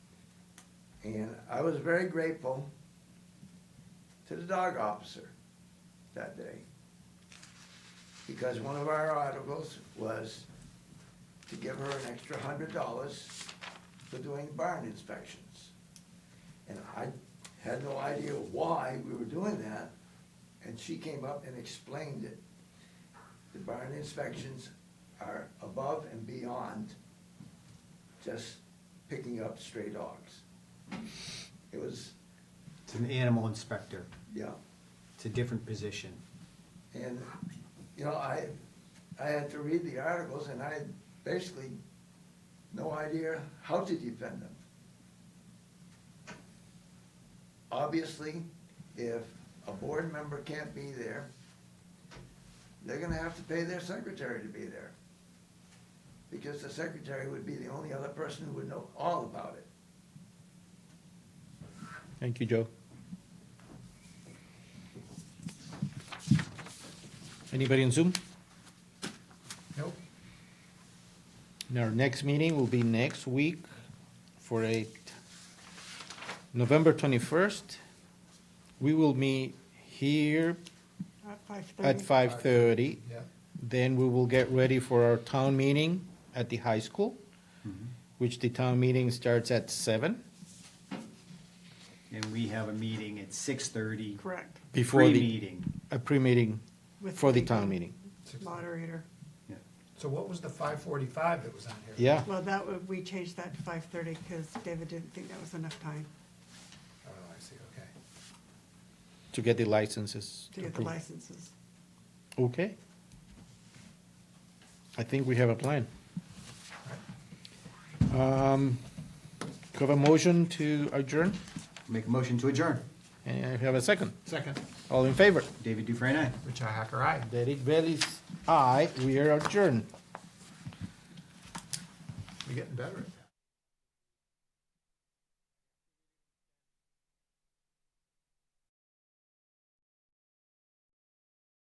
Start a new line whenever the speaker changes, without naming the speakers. And I was very grateful to the dog officer that day. Because one of our articles was to give her an extra hundred dollars for doing barn inspections. And I had no idea why we were doing that, and she came up and explained it. The barn inspections are above and beyond just picking up stray dogs. It was,
It's an animal inspector.
yeah,
It's a different position.
and, you know, I, I had to read the articles and I had basically no idea how to defend them. Obviously, if a board member can't be there, they're gonna have to pay their secretary to be there. Because the secretary would be the only other person who would know all about it.
Thank you, Joe. Anybody on Zoom?
Nope.
And Our next meeting will be next week for a t- November 21st. We will meet here
At five
at
thirty.
5:30.
Yeah.
Then we will get ready for our town meeting at the high school, which the town meeting starts at seven.
And we have a meeting at six thirty.
Correct.
Before the,
Pre-meeting.
a pre-meeting
With
for the town meeting.
Moderator.
Yeah.
So what was the five forty-five that was on here?
Yeah,
Well, that, would- we changed that to five thirty because David didn't think that was enough time
Oh, I see, okay.
to get the licenses.
to get the
approved.
licenses.
Okay. I think we have a plan. Um, do you have a motion to adjourn?
Make a motion to adjourn.
And I have a second.
Second.
All in favor?
David Dufresne, aye.
Richi Hacker, aye.
Derek Bailey's aye. We are adjourned.
You're getting better at this.